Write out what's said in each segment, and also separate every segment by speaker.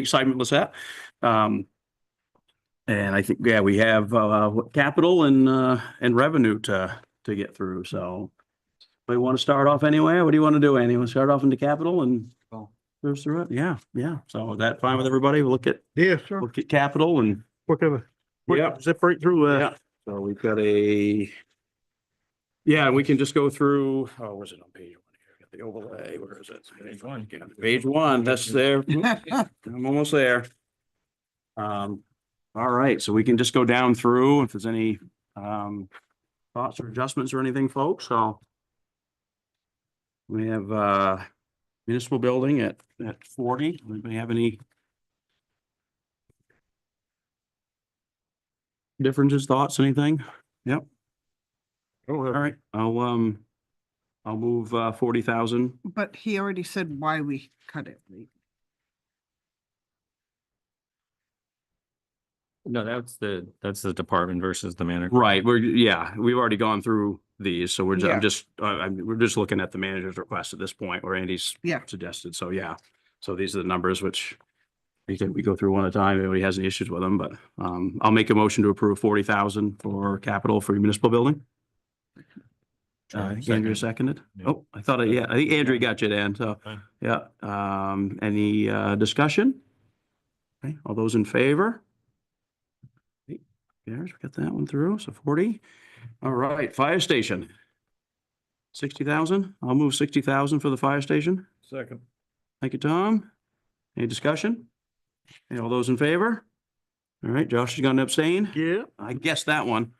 Speaker 1: excitement was at. Um, and I think, yeah, we have, uh, what, capital and, uh, and revenue to, to get through, so. We want to start off anyway. What do you want to do, Andy? Want to start off into capital and
Speaker 2: Well.
Speaker 1: go through it? Yeah, yeah. So is that fine with everybody? We'll look at,
Speaker 3: Yeah, sure.
Speaker 1: look at capital and,
Speaker 3: Quick of a,
Speaker 1: yeah.
Speaker 3: quick zip right through
Speaker 1: Yeah,
Speaker 3: uh, that.
Speaker 1: so we've got a. Yeah, we can just go through, oh, was it on page one here? Got the overlay, where is it? Page one. Page one, that's there. I'm almost there. Um, all right, so we can just go down through if there's any um thoughts or adjustments or anything, folks, so. We have uh municipal building at at forty. Anybody have any differences, thoughts, anything? Yep. All right, I'll um, I'll move uh forty thousand.
Speaker 4: But he already said why we cut it. Lee.
Speaker 2: No, that's the, that's the department versus the manager.
Speaker 1: Right, we're, yeah, we've already gone through these, so we're, ju-
Speaker 4: Yeah.
Speaker 1: I'm just, I, I'm, we're just looking at the manager's request at this point, or Andy's
Speaker 4: Yeah.
Speaker 1: suggested, so yeah. So these are the numbers which we can, we go through one at a time, if anybody has any issues with them, but, um, I'll make a motion to approve forty thousand for capital for municipal building. Uh, Andrew seconded?
Speaker 2: Yeah.
Speaker 1: Oh, I thought, I yeah, I think Andrew got you, Dan, so,
Speaker 2: Fine.
Speaker 1: yeah, um, any, uh, discussion? Okay, all those in favor? There's, we got that one through, so forty. All right, fire station. Sixty thousand, I'll move sixty thousand for the fire station.
Speaker 3: Second.
Speaker 1: Thank you, Tom. Any discussion? Hey, all those in favor? All right, Josh is gonna abstain.
Speaker 3: Yeah.
Speaker 1: I guess that one.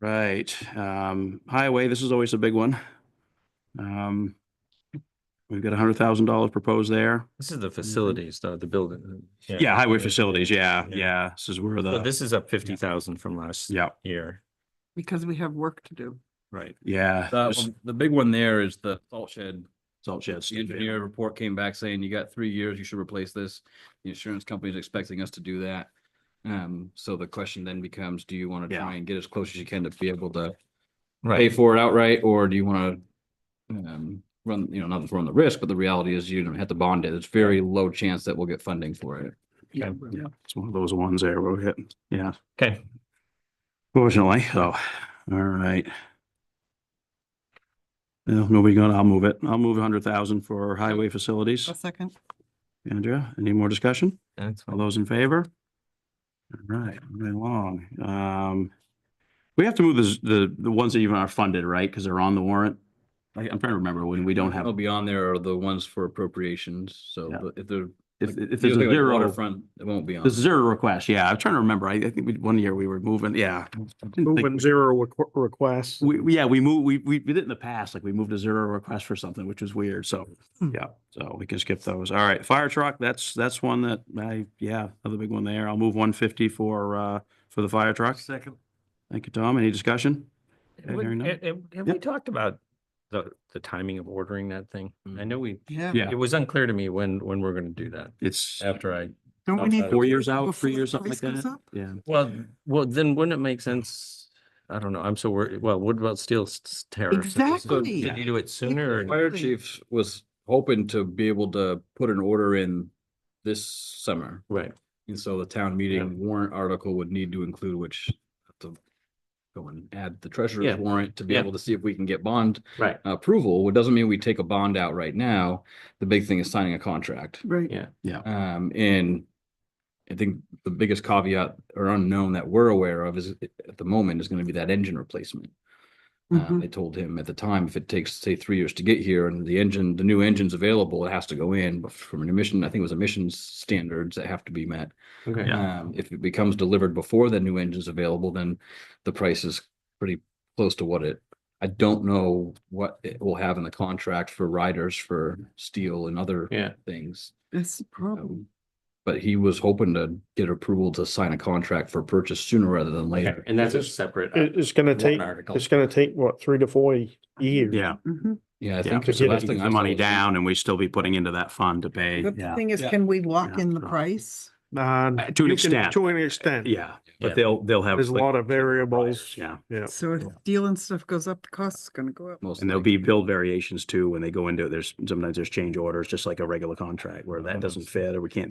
Speaker 1: Right, um, highway, this is always a big one. Um, we've got a hundred thousand dollars proposed there.
Speaker 2: This is the facilities, the, the building. uh,
Speaker 1: Yeah, highway facilities, yeah,
Speaker 2: Yeah.
Speaker 1: yeah, this is where
Speaker 2: So
Speaker 1: the,
Speaker 2: this is up fifty thousand from last
Speaker 1: yeah,
Speaker 2: year.
Speaker 4: Because we have work to do.
Speaker 2: Right.
Speaker 1: yeah. this
Speaker 5: The, the big one there is the salt shed.
Speaker 1: Salt sheds.
Speaker 5: The engineer report came back saying you got three years, you should replace this. The insurance company is expecting us to do that. Um, so the question then becomes, do you want to
Speaker 1: Yeah.
Speaker 5: try and get as close as you can to be able to pay
Speaker 2: Right.
Speaker 5: for it outright, or do you want to um, run, you know, not run the risk, but the reality is you don't have to bond it. There's very low chance that we'll get funding for it.
Speaker 1: Yeah, yeah, it's one of those ones there where we hit, yeah.
Speaker 2: Okay.
Speaker 1: Fortunately, so, all right. No, nobody gonna, I'll move it. I'll move a hundred thousand for highway facilities.
Speaker 4: A second.
Speaker 1: Andrea, any more discussion?
Speaker 2: That's
Speaker 1: All those in favor? All right, moving along. Um, we have to move this, the, the ones that even are funded, right? Because they're on the warrant. I, I'm trying to remember when we don't
Speaker 5: It'll
Speaker 1: have,
Speaker 5: be on there are the ones for appropriations, so
Speaker 1: Yeah.
Speaker 5: but if they're.
Speaker 1: if,
Speaker 5: like,
Speaker 1: if there's
Speaker 5: you
Speaker 1: a
Speaker 5: look at
Speaker 1: zero.
Speaker 5: Waterfront, it won't be on.
Speaker 1: There's zero requests. Yeah, I'm trying to remember. I, I think we, one year we were moving, yeah. I didn't think
Speaker 3: Moving zero requ- requests.
Speaker 1: We, we- yeah, we moved, we, we we did it in the past, like we moved a zero request for something, which was weird, so, yeah, so we can skip those. All right, fire truck, that's, that's one that I, yeah, another big one there. I'll move one fifty for, uh, for the fire truck.
Speaker 3: Second.
Speaker 1: Thank you, Tom. Any discussion? Yeah, very nice.
Speaker 2: Have
Speaker 1: Yep.
Speaker 2: we talked about the, the timing of ordering that thing? I know we,
Speaker 4: Yeah.
Speaker 1: Yeah.
Speaker 2: it was unclear to me when, when we're gonna do that.
Speaker 1: It's
Speaker 2: After I,
Speaker 4: Don't we need?
Speaker 1: four years out,
Speaker 4: Before
Speaker 1: three
Speaker 4: the
Speaker 1: years, something like
Speaker 4: price goes
Speaker 1: that.
Speaker 4: up?
Speaker 1: Yeah,
Speaker 2: well, well, then wouldn't it make sense? I don't know. I'm so worried. Well, what about steel s- s- tariffs? Is this- so
Speaker 4: Exactly.
Speaker 2: Did you do it sooner? or-
Speaker 5: Fire
Speaker 4: Really?
Speaker 5: chief was hoping to be able to put an order in this summer.
Speaker 2: Right.
Speaker 5: And so the town meeting warrant article would need to include which have to go and add the
Speaker 2: Yeah.
Speaker 5: treasurer's warrant to be
Speaker 2: Yeah.
Speaker 5: able to see if we can get bond
Speaker 2: Right.
Speaker 5: approval. It doesn't mean we take a bond out right now. The big thing is signing a contract.
Speaker 4: Right.
Speaker 5: Um, and I think the biggest caveat or unknown that we're aware of is at the moment is gonna be that engine replacement.
Speaker 2: Mm-hmm.
Speaker 5: Uh,
Speaker 4: Mhm.
Speaker 5: I told him at the time, if it takes, say, three years to get here and the engine, the new engine's available, it has to go in, but from an emission, I think it was emissions standards that have to be met.
Speaker 2: Okay.
Speaker 5: Um, if it becomes delivered before the new engine's available, then the price is pretty close to what it. I don't know what it will have in the contract for riders for steel and other
Speaker 2: Yeah. Oh.
Speaker 5: things.
Speaker 4: That's the problem.
Speaker 5: Um, But he was hoping to get approval to sign a contract for purchase sooner rather than
Speaker 2: Okay,
Speaker 5: later.
Speaker 2: And that's a separate. uh,
Speaker 3: It, it's gonna
Speaker 2: warrant
Speaker 3: take,
Speaker 2: article.
Speaker 3: it's gonna take, what, three to four years?
Speaker 1: yeah.
Speaker 4: Mhm.
Speaker 5: Yeah, I
Speaker 1: yeah,
Speaker 5: think.
Speaker 1: because we
Speaker 5: that's the
Speaker 3: get
Speaker 5: last
Speaker 1: keep
Speaker 5: thing I
Speaker 1: The money
Speaker 5: saw was-
Speaker 1: down and we still be putting into that fund to pay,
Speaker 4: But
Speaker 1: yeah.
Speaker 4: The thing is,
Speaker 5: Yeah.
Speaker 4: can we lock
Speaker 1: Yeah.
Speaker 4: in the price?
Speaker 3: nine.
Speaker 1: Uh, to an
Speaker 3: You can-
Speaker 1: extent.
Speaker 3: To an extent.
Speaker 1: Yeah,
Speaker 2: Yeah.
Speaker 1: but they'll, they'll have.
Speaker 3: There's a lot of variables.
Speaker 1: Yeah,
Speaker 3: Yeah.
Speaker 4: So if steel and stuff goes up, the cost is gonna go up.
Speaker 5: most
Speaker 1: and there'll
Speaker 5: likely.
Speaker 1: be build variations too, when they go into, it. there's, sometimes there's change orders, just like a regular contract where that doesn't fit or we can't do